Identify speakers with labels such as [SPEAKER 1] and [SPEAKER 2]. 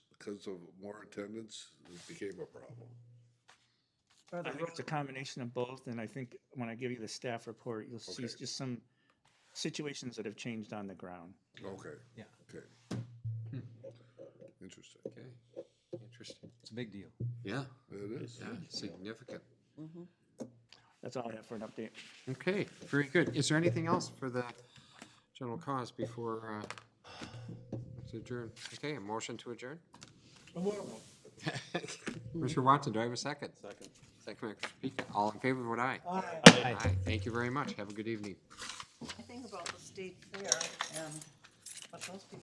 [SPEAKER 1] because of more attendance, it became a problem.
[SPEAKER 2] I think it's a combination of both, and I think when I give you the staff report, you'll see
[SPEAKER 1] Okay.
[SPEAKER 2] just some situations that have changed on the ground.
[SPEAKER 1] Okay.
[SPEAKER 3] Yeah.
[SPEAKER 1] Okay. Interesting.
[SPEAKER 3] Okay, interesting.
[SPEAKER 4] It's a big deal.
[SPEAKER 3] Yeah,
[SPEAKER 1] It is.
[SPEAKER 3] yeah, significant.
[SPEAKER 2] That's all I have for an update.
[SPEAKER 3] Okay, very good. Is there anything else for the general cause before, uh, it's adjourned? Okay, a motion to adjourn? Mr. Watson, do I have a second? Second. Second, Mr. Peek. all in favor, vote aye. Aye. Aye. Thank you very much. Have a good evening.
[SPEAKER 5] I think about the state fair and what those people